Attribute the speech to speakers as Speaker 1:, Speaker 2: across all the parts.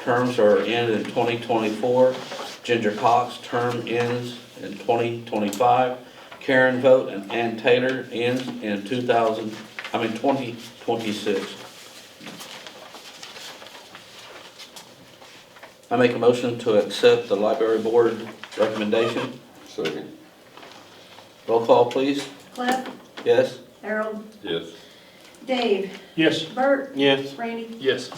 Speaker 1: Terms are in in 2024. Ginger Cox, term ends in 2025. Karen Vogt and Ann Taylor ends in 2000, I mean 2026. I make a motion to accept the library board recommendation.
Speaker 2: Second.
Speaker 1: Roll call, please.
Speaker 3: Cliff,
Speaker 1: Yes?
Speaker 3: Harold,
Speaker 2: Yes.
Speaker 3: Dave,
Speaker 4: Yes.
Speaker 3: Bert,
Speaker 4: Yes.
Speaker 3: Randy,
Speaker 4: Yes.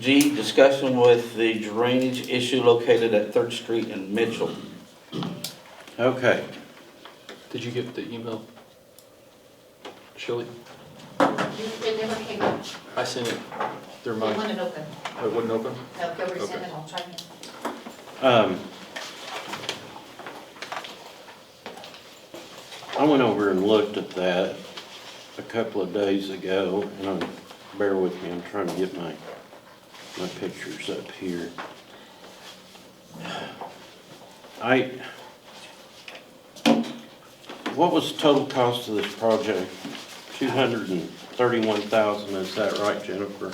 Speaker 1: G, discussion with the drainage issue located at Third Street in Mitchell.
Speaker 4: Okay. Did you get the email? Shelley?
Speaker 5: It never came up. It
Speaker 4: I sent it through my,
Speaker 5: wasn't open.
Speaker 4: it wouldn't open?
Speaker 5: No, go resend
Speaker 4: Okay.
Speaker 5: it, I'll try again.
Speaker 6: Um, I went over and looked at that a couple of days ago, and I'm, bear with me, I'm trying to get my, my pictures up here. I, what was the total cost of this project? Two hundred and thirty-one thousand, is that right, Jennifer?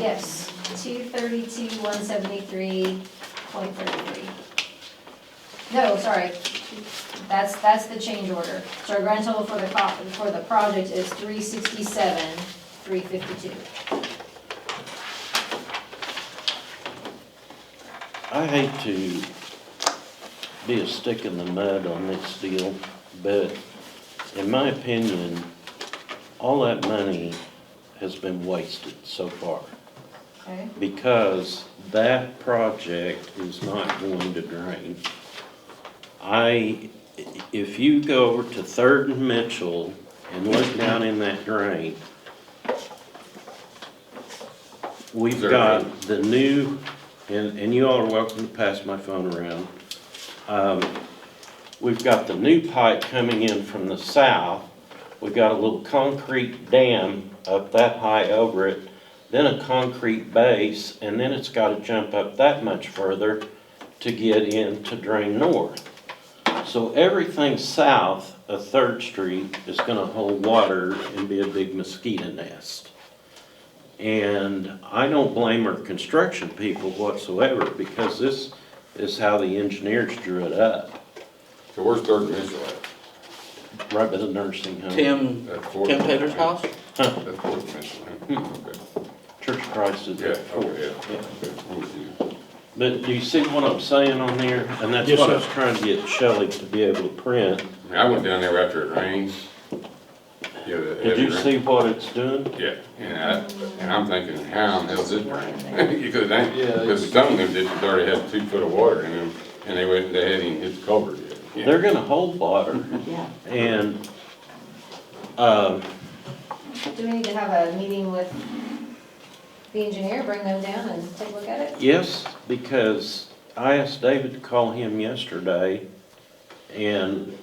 Speaker 7: Yes, two thirty-two, one seventy-three, point thirty-three. No, sorry, that's, that's the change order. So our grand total for the co for the project is three sixty-seven, three fifty-two.
Speaker 6: I hate to be a stick in the mud on this deal, but in my opinion, all that money has been wasted so far
Speaker 7: Okay,
Speaker 6: because that project is not going to drain. I, if you go over to Third and Mitchell and look down in that drain, we've
Speaker 2: There.
Speaker 6: got the new, and, and you all are welcome to pass my phone around. Um, We've got the new pipe coming in from the south. We've got a little concrete dam up that high over it, then a concrete base, and then it's gotta jump up that much further to get in to drain north. So everything south of Third Street is gonna hold water and be a big mosquito nest. And I don't blame our construction people whatsoever, because this is how the engineers drew it up.
Speaker 2: So where's Third and Mitchell at?
Speaker 6: Right by the nursing home.
Speaker 1: Tim,
Speaker 2: At Fort-
Speaker 1: Tim Taylor's house?
Speaker 2: At Fourth and Mitchell, huh? Okay.
Speaker 6: Church of Christ is
Speaker 2: Yeah,
Speaker 6: there.
Speaker 2: okay, yeah. Okay, I'm with you.
Speaker 6: But do you see what I'm saying on there? And that's
Speaker 4: Yes,
Speaker 6: what I
Speaker 4: sir.
Speaker 6: was trying to get Shelley to be able to print.
Speaker 2: I mean, I went down there after it rained. Yeah, the
Speaker 6: Did
Speaker 2: heavy
Speaker 6: you
Speaker 2: rain.
Speaker 6: see what it's doing?
Speaker 2: Yeah, and I, and I'm thinking, how in the hell's it rain? You could think,
Speaker 4: Yeah,
Speaker 2: because some of them ditches already had two foot of water in them, and they went, they hadn't even hit the culvert yet. Yeah.
Speaker 6: They're gonna hold water. And, um,
Speaker 7: do we need to have a meeting with the engineer, bring them down and take a look at it?
Speaker 6: Yes, because I asked David to call him yesterday, and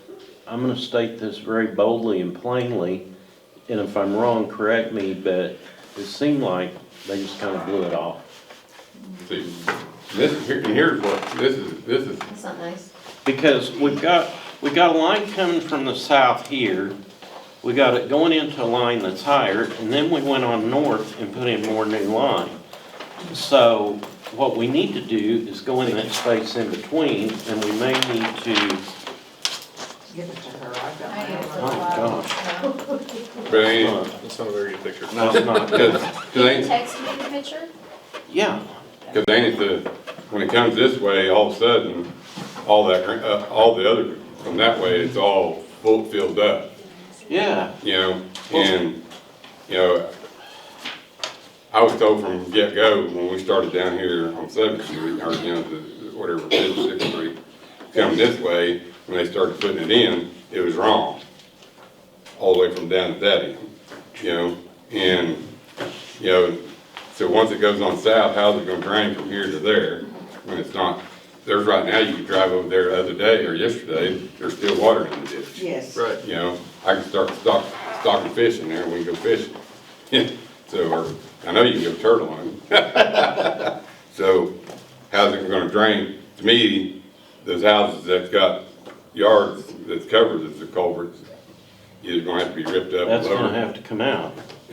Speaker 6: I'm gonna state this very boldly and plainly, and if I'm wrong, correct me, but it seemed like they just kinda blew it off.
Speaker 2: See, this, here- here's what, this is, this is
Speaker 7: That's not nice.
Speaker 6: Because we've got, we've got a line coming from the south here, we got it going into a line that's higher, and then we went on north and put in more new line. So what we need to do is go in that space in between, and we may need to,
Speaker 5: Give it to her, I've got
Speaker 7: I need it for a
Speaker 6: oh
Speaker 7: while.
Speaker 6: gosh,
Speaker 2: But I ain't,
Speaker 6: uh,
Speaker 4: That's not a very good picture.
Speaker 6: that's not good.
Speaker 2: cause, 'cause
Speaker 7: Can you
Speaker 2: ain't,
Speaker 7: text me the picture?
Speaker 6: Yeah,
Speaker 2: cause ain't it the, when it comes this way, all of a sudden, all that, gra- uh, all the other, from that way, it's all full, filled up,
Speaker 6: yeah,
Speaker 2: you know? And, you know, I was told from get-go, when we started down here on Seventh Street, or, you know, the, whatever, Fifth, Sixth Street, coming this way, when they started putting it in, it was wrong. All the way from down to that end, you know, and, you know, so once it goes on south, how's it gonna drain from here to there? When it's not, there's right now, you could drive over there the other day or yesterday, there's still water in the ditch.
Speaker 5: Yes.
Speaker 4: Right.
Speaker 2: You know, I can start stock, stocking fish in there, we can go fishing. So, or, I know you can go turtle hunting. So, how's it gonna drain? To me, those houses that's got yards that's covered as the culverts, is gonna have to be ripped up. and
Speaker 6: that's gonna
Speaker 2: lowered.
Speaker 6: have to come out.